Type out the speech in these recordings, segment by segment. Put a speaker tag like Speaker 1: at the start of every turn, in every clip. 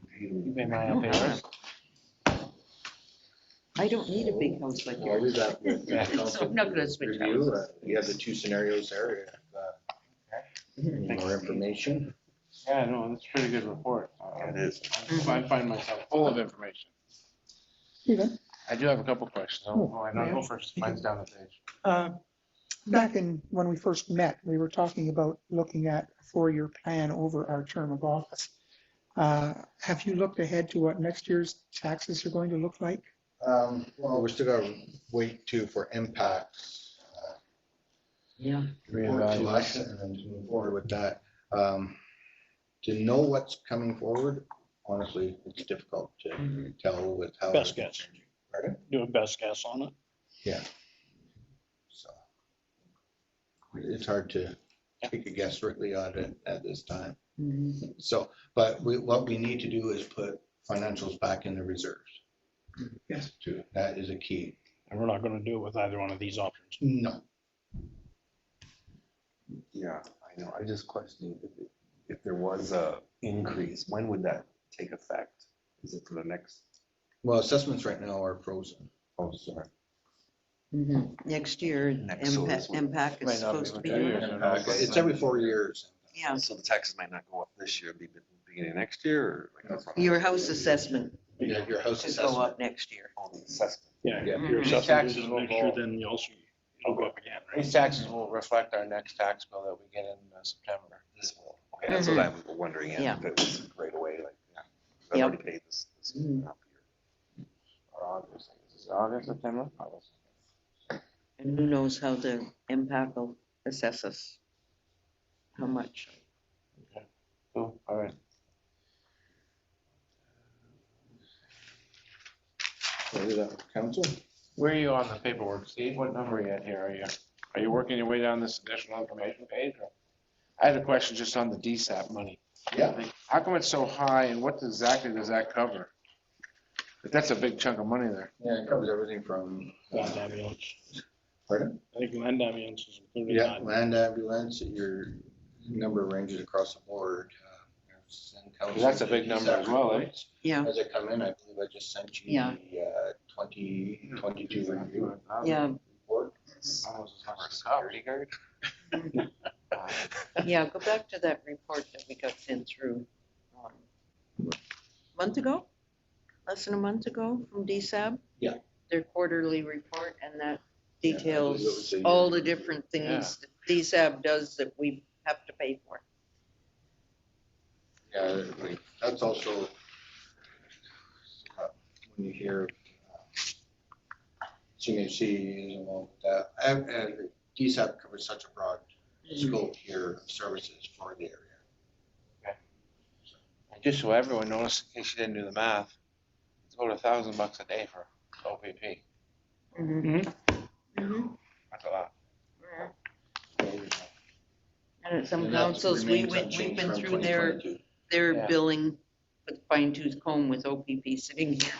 Speaker 1: computer.
Speaker 2: You made mine up yours.
Speaker 3: I don't need a big house like
Speaker 1: I'll
Speaker 3: yours.
Speaker 1: leave that with
Speaker 2: Yeah,
Speaker 1: council
Speaker 3: so I'm not gonna switch
Speaker 1: review. Uh, You have the two scenarios there. if, uh, you need More information.
Speaker 2: Yeah, no, that's a pretty good report.
Speaker 1: It is.
Speaker 2: I find myself full of information. I do have a couple questions. Oh, oh, I don't go first. Mine's down the page.
Speaker 4: Uh, Back in, when we first met, we were talking about looking at a four-year plan over our term of office. Uh, Have you looked ahead to what next year's taxes are going to look like?
Speaker 1: Um, Well, we're still gonna wait too for impacts. uh,
Speaker 3: Yeah.
Speaker 1: report to us And then to move forward with that. Um, To know what's coming forward, honestly, it's difficult to tell with how.
Speaker 5: Best guess.
Speaker 1: Pardon?
Speaker 5: do a best guess on it.
Speaker 1: So It's hard to take a guess really on it at this time.
Speaker 3: Mm-hmm.
Speaker 1: So, but we, what we need to do is put financials back in the reserves.
Speaker 4: Yes.
Speaker 1: Too. That is a key.
Speaker 5: And we're not gonna do it with either one of these options.
Speaker 1: No.
Speaker 6: Yeah, I know. I just questioned if, it- if there was a increase, when would that take effect? Is it for the next?
Speaker 1: Well, assessments right now are frozen.
Speaker 6: Oh, sorry.
Speaker 3: Mhm. Next year,
Speaker 6: Next solar
Speaker 3: MPAC
Speaker 6: is-
Speaker 3: MPAC
Speaker 2: Might
Speaker 3: is
Speaker 2: not be
Speaker 3: supposed to
Speaker 2: what
Speaker 3: be,
Speaker 2: that
Speaker 3: on.
Speaker 2: is.
Speaker 1: It's every four years.
Speaker 3: yeah,
Speaker 6: So the taxes might not go up this year, be the beginning of next year or? like, that's what I'm-
Speaker 3: your house assessment
Speaker 1: Yeah, Your house
Speaker 3: should go
Speaker 1: assessment.
Speaker 3: up next year.
Speaker 6: Oh, the assessment.
Speaker 5: Yeah.
Speaker 1: Yeah.
Speaker 5: if your
Speaker 3: Mhm.
Speaker 5: assessment
Speaker 2: Taxes
Speaker 5: goes up
Speaker 2: will
Speaker 5: next year,
Speaker 2: go-
Speaker 5: Then you also, it'll go up again,
Speaker 2: These
Speaker 5: right?
Speaker 2: taxes will reflect our next tax bill that we get in uh, September.
Speaker 6: This will. Okay, that's what I was wondering, yeah,
Speaker 3: Mm-hmm. Yeah.
Speaker 6: if it was right away, like, yeah. 'cause I've
Speaker 3: Yep.
Speaker 6: already paid this, this
Speaker 3: Mhm.
Speaker 6: half year.
Speaker 2: Or August, I guess. Is it August, September? August.
Speaker 3: And who knows how the MPAC will assess us? How much?
Speaker 2: Cool, all right.
Speaker 1: Is that Council?
Speaker 2: Where are you on the paperwork, Steve? What number are you at here? Are you, are you working your way down this additional information page? or- I had a question just on the DSAP money.
Speaker 1: Yeah.
Speaker 2: How come it's so high and what exactly does that cover? But That's a big chunk of money there.
Speaker 1: Yeah, it covers everything from, uh,
Speaker 5: Land ambulance.
Speaker 1: pardon?
Speaker 5: I think land ambulance is included in
Speaker 1: Yeah,
Speaker 5: that.
Speaker 1: land ambulance, your number of ranges across the board. uh, and council-
Speaker 2: That's a big number as well, eh?
Speaker 3: Yeah,
Speaker 1: As I come in, I believe I just sent you
Speaker 3: Yeah.
Speaker 1: the uh, twenty, twenty-two review
Speaker 3: yeah,
Speaker 1: report.
Speaker 2: Almost as much as security guard.
Speaker 3: yeah, go back to that report that we got sent through. um, Month ago, less than a month ago from DSAB?
Speaker 1: Yeah.
Speaker 3: Their quarterly report and that
Speaker 1: Yeah, I believe it was
Speaker 3: details
Speaker 1: a year.
Speaker 3: all the different things that DSAB does that we have to pay for.
Speaker 1: Yeah, like, that's also uh, when you hear uh, CMHC and all that, and- and DSAP covers such a broad scope here of services for the area.
Speaker 2: And Just so everyone knows, in case you didn't do the math, it's about a thousand bucks a day for OPP.
Speaker 3: Mhm.
Speaker 2: That's a lot.
Speaker 3: Mm-hmm. And at some
Speaker 1: And that
Speaker 3: councils, we
Speaker 1: remains
Speaker 3: went, we've
Speaker 1: unchanged
Speaker 3: been
Speaker 1: from
Speaker 3: through their,
Speaker 1: 2022.
Speaker 3: their
Speaker 2: Yeah.
Speaker 3: billing with fine tooth comb with OPP sitting here.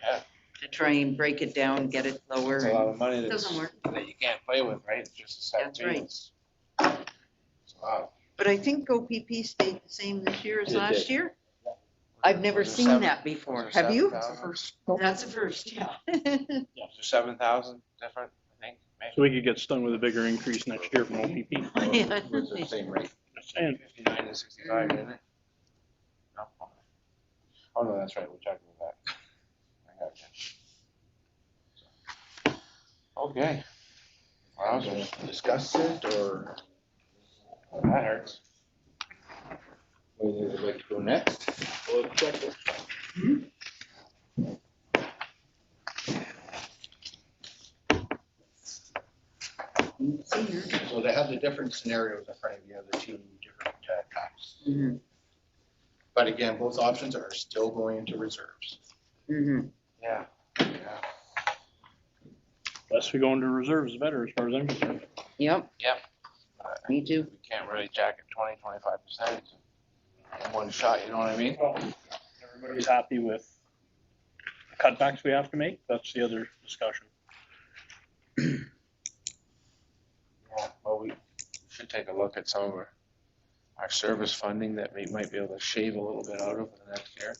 Speaker 2: Yeah.
Speaker 3: To try and break it down, get it lower.
Speaker 2: It's a lot of money
Speaker 3: It
Speaker 2: that's,
Speaker 3: doesn't work.
Speaker 2: that you can't play with, right? It's just a set
Speaker 3: That's right.
Speaker 2: piece. It's a lot.
Speaker 3: But I think OPP stayed the same this year as
Speaker 1: It
Speaker 3: last
Speaker 1: did.
Speaker 3: year. I've never
Speaker 2: Was it
Speaker 3: seen
Speaker 2: seven-
Speaker 3: that
Speaker 2: was
Speaker 3: before.
Speaker 2: it
Speaker 3: Have you?
Speaker 2: 7,000?
Speaker 4: Nope.
Speaker 3: That's the first, yeah.
Speaker 2: Was it seven thousand different, I think,
Speaker 5: So
Speaker 2: maybe
Speaker 5: we could get stung with a bigger increase next year from OPP.
Speaker 1: It was the Same rate.
Speaker 5: Just saying.
Speaker 2: fifty-nine to sixty-five, isn't it? No. Oh, no, that's right, we're talking about that. I got you. Okay. Wowzers,
Speaker 1: Discuss it or
Speaker 2: that hurts.
Speaker 1: where they would like to go next? So they have the different scenarios in front of you, the two different uh, types.
Speaker 3: Mhm,
Speaker 1: But again, both options are still going into reserves.
Speaker 3: mhm.
Speaker 2: Yeah. Yeah.
Speaker 5: Less we go into reserves, the better as far as I'm concerned.
Speaker 3: Yep.
Speaker 2: Yep.
Speaker 3: Me too.
Speaker 2: We can't really jack it twenty, twenty-five percent in one shot, you know what I mean?
Speaker 5: Everybody's happy with the cutbacks we have to make. That's the other discussion.
Speaker 2: Yeah, Well, we should take a look at some of our, our service funding that we might be able to shave a little bit out of for the next year.